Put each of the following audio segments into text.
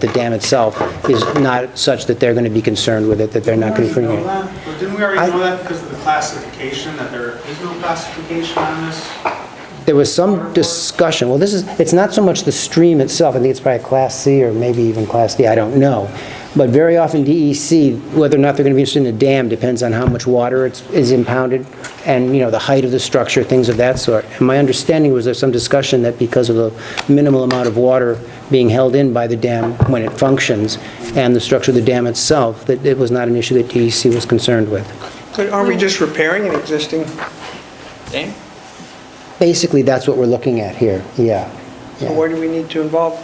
The dam itself is not such that they're going to be concerned with it, that they're not going to... We already know that, But didn't we I- already know that because of the classification, that there is no classification on this? There was some discussion, well, this is, it's not so much the stream itself, I think it's probably Class C or maybe even Class D, I don't know. But very often DEC, whether or not they're going to be interested in a dam depends on how much water it's- is impounded and, you know, the height of the structure, things of that sort. And my understanding was there's some discussion that because of the minimal amount of water being held in by the dam when it functions and the structure of the dam itself, that it was not an issue that DEC was concerned with. But aren't we just repairing an existing dam? Basically, that's what we're looking at here, yeah. So why do we need to involve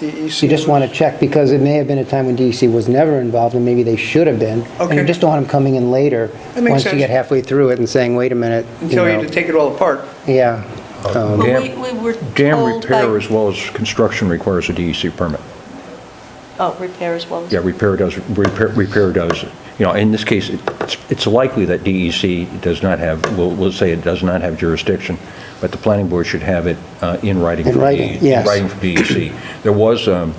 E DEC? You just want to check, because it may have been a time when DEC was never involved, and maybe they should have been. And you Okay. just don't want them coming in later, That makes once you sense. get halfway through it and saying, wait a minute, And you Tell you know. to take it all apart. Yeah. Um, Well, Dam- we, we were Dam told by- repair as well as construction requires a DEC permit. Oh, repair as well as. Yeah, repair does, repair repair does, you know, in this case, it's it's likely that DEC does not have, we'll we'll say it does not have jurisdiction, but the planning board should have it uh, in writing. In for writing, DE yes. In writing for DEC. There was, um,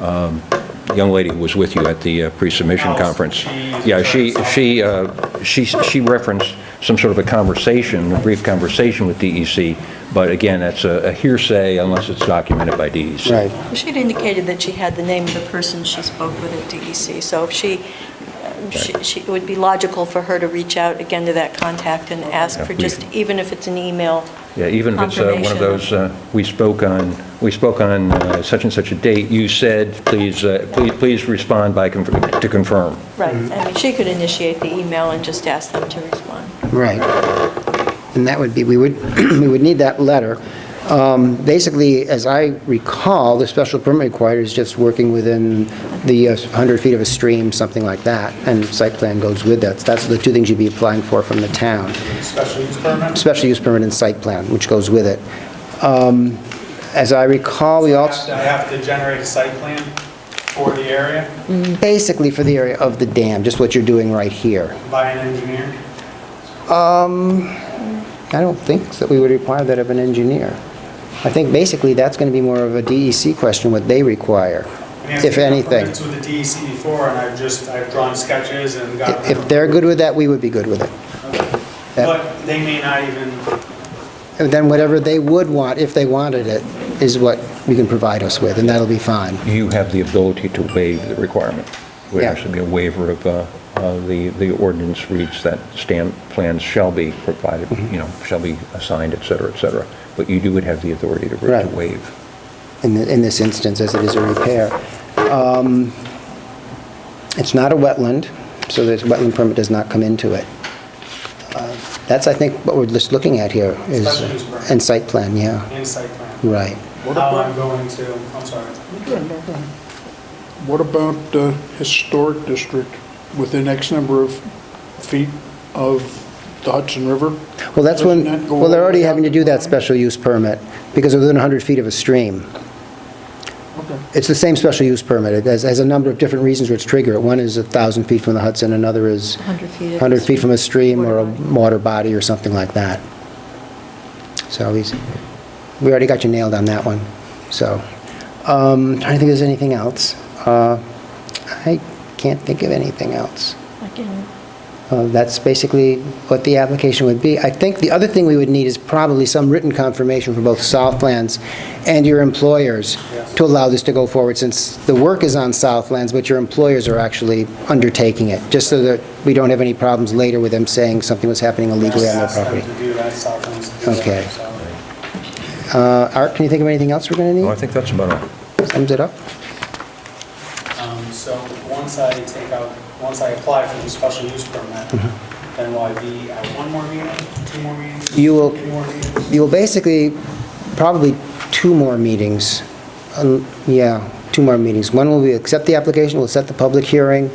um, a young lady who was with you at the uh, pre-submission Oh, conference. she's- Yeah, she, she, uh, she she referenced some sort of a conversation, a brief conversation with DEC, but again, that's a a hearsay unless it's documented by E DEC. Right. She'd indicated that she had the name of the person she spoke with at DEC, so if she, um, she, she- it would be logical for her to reach out again to that contact and ask Yeah, for we- just, even if it's an email. Yeah, even if it's uh, one of confirmation. those, uh, we spoke on, we spoke on uh, such and such a date, you said, please, uh, please please respond by, conf- to confirm. Right, I mean, she could initiate the email and just ask them to respond. Right. And that would be, we would, we would need that letter. Um, Basically, as I recall, the special permit required is just working within the uh, 100 feet of a stream, something like that, and site plan goes with that. That's the two things you'd be applying for from the town. Special use permit? special use permit and site plan, which goes with it. Um, As I recall, we I have to- also, I have to generate a site plan for the area basically for the area of the dam, just what you're doing right here. by an engineer? I don't think that we would require that of an engineer. I think basically that's going to be more of a DEC question, what they require, I mean, I've if taken anything. permits with the DEC before, and I've just, I've drawn sketches and got If them. they're good with that, we would be good with it. But they may not even, And then whatever they would want, if they wanted it, is what you can provide us with, and that'll be fine. You have the ability to waive the requirement. It Would Yeah. actually be a waiver of, uh, uh, the, the ordinance reads that stamp plans shall be provided, Mm-hmm. you know, shall be assigned, et cetera, et cetera. But you do would have the authority to to Right. waive. in the- in this instance, as it is a repair. Um, It's not a wetland, so this wetland permit does not come into it. Uh, That's, I think, what we're just looking at here is... Special use permit. And site plan, yeah, in site plan, right. how I'm going to, I'm sorry. What about the historic district within X number of feet of the Hudson River? Well, that's when, Doesn't that go well, they're all the already way having to out do to that Vermont? special use permit because they're within 100 feet of a stream. Okay. It's the same special use permit. It has, has a number of different reasons which trigger it. One is 1,000 feet from the Hudson, another is 100 feet of a 100 feet from a stream or a water body. water body or something like that. So he's, we already got you nailed on that one, so. um, Trying to think if there's anything else. Uh, I can't think of anything else. I can Uh, That's basically what the application would be. I think the other thing we would need is probably some written confirmation for both Southlands and your employers Yes. to allow this to go forward, since the work is on Southlands, but your employers are actually undertaking it, just so that we don't have any problems later with them saying something was happening illegally on their Ask them property. to do that, South Plains to do that, Okay. so. Uh, Art, can you think of anything else we're going No, to I think that's about it. need? Sums it up? Um, So once I take out, once I apply for the special use permit, then will I be at one more meeting, two more meetings? Mm-hmm. You will- Three more meetings? You will basically, probably two more meetings. Um, Yeah, two more meetings. One will be accept the application, we'll set the public hearing,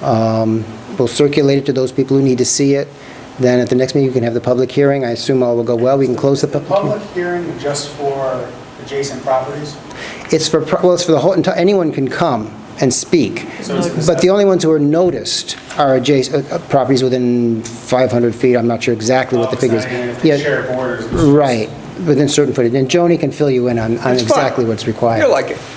um, we'll circulate it to those people who need to see it. Then at the next meeting, you can have the public hearing. I assume all will go well, we can close the The public. public hearing just for adjacent properties? It's for, pro- well, it's for the whole, enti- anyone can come and speak. So it's- But the only ones who are noticed are adjacent, uh, properties within 500 feet. I'm not sure exactly what the figure is. Oh, it's not even Yeah. if they share borders. Right, within certain footage. And Joni can fill you in on on It's fine. exactly what's required. You're like it.